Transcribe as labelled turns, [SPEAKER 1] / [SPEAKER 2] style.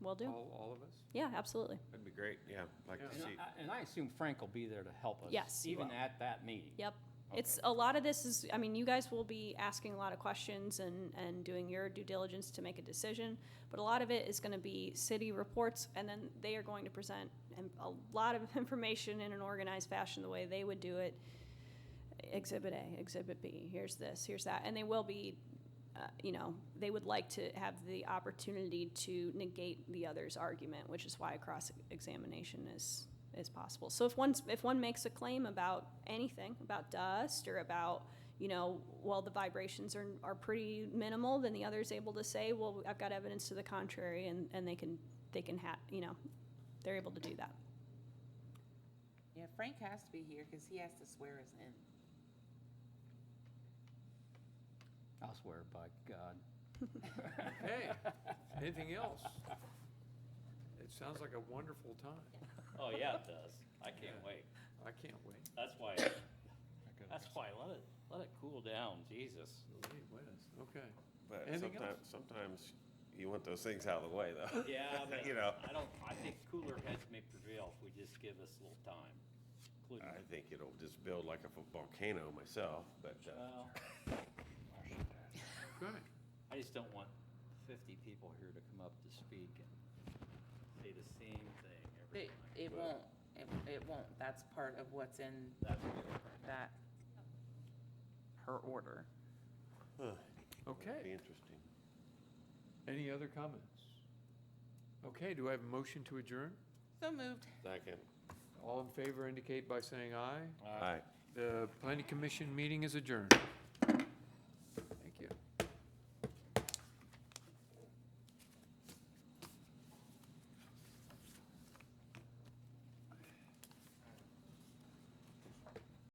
[SPEAKER 1] Will do.
[SPEAKER 2] All, all of us?
[SPEAKER 1] Yeah, absolutely.
[SPEAKER 3] That'd be great, yeah, like to
[SPEAKER 4] And
[SPEAKER 3] see.
[SPEAKER 4] I- And I assume Frank will be there to help us.
[SPEAKER 1] Yes, he
[SPEAKER 4] Even
[SPEAKER 1] will.
[SPEAKER 4] at that meeting.
[SPEAKER 1] Yep. It's, a lot of this is, I mean, you guys will be asking a lot of questions and, and doing your due diligence to make a decision, but a lot of it is gonna be city reports, and then they are going to present and a lot of information in an organized fashion, the way they would do it. Exhibit A, Exhibit B, here's this, here's that, and they will be, uh, you know, they would like to have the opportunity to negate the other's argument, which is why cross-examination is, is possible. So if one's, if one makes a claim about anything, about dust or about, you know, well, the vibrations are, are pretty minimal, then the other's able to say, well, I've got evidence to the contrary, and, and they can, they can ha, you know, they're able to do that.
[SPEAKER 5] Yeah, Frank has to be here because he has to swear us in.
[SPEAKER 4] I'll swear by God.
[SPEAKER 2] Hey, anything else? It sounds like a wonderful time.
[SPEAKER 6] Oh, yeah, it does. I can't
[SPEAKER 2] Yeah.
[SPEAKER 6] wait.
[SPEAKER 2] I can't wait.
[SPEAKER 6] That's why, that's why, let it, let it cool down, Jesus.
[SPEAKER 2] Gee whiz, Okay.
[SPEAKER 3] But
[SPEAKER 2] Anything
[SPEAKER 3] sometimes, sometimes you want those things out of the way, though.
[SPEAKER 6] Yeah, but
[SPEAKER 3] You know,
[SPEAKER 6] I don't, I think cooler heads may prevail if we just give us a little time, including,
[SPEAKER 3] I think it'll just build like a vo- volcano myself, but, uh,
[SPEAKER 6] well,
[SPEAKER 2] Good.
[SPEAKER 6] I just don't want fifty people here to come up to speak and say the same thing every
[SPEAKER 5] It,
[SPEAKER 6] time.
[SPEAKER 5] it won't, it, it won't. That's part of what's in
[SPEAKER 6] That's what
[SPEAKER 5] that, her order.
[SPEAKER 3] it'll be
[SPEAKER 2] Okay.
[SPEAKER 3] interesting.
[SPEAKER 2] Any other comments? Okay, do I have a motion to adjourn?
[SPEAKER 5] So moved.
[SPEAKER 3] Second.
[SPEAKER 2] All in favor indicate by saying aye.
[SPEAKER 3] Aye.
[SPEAKER 2] The planning commission meeting is adjourned.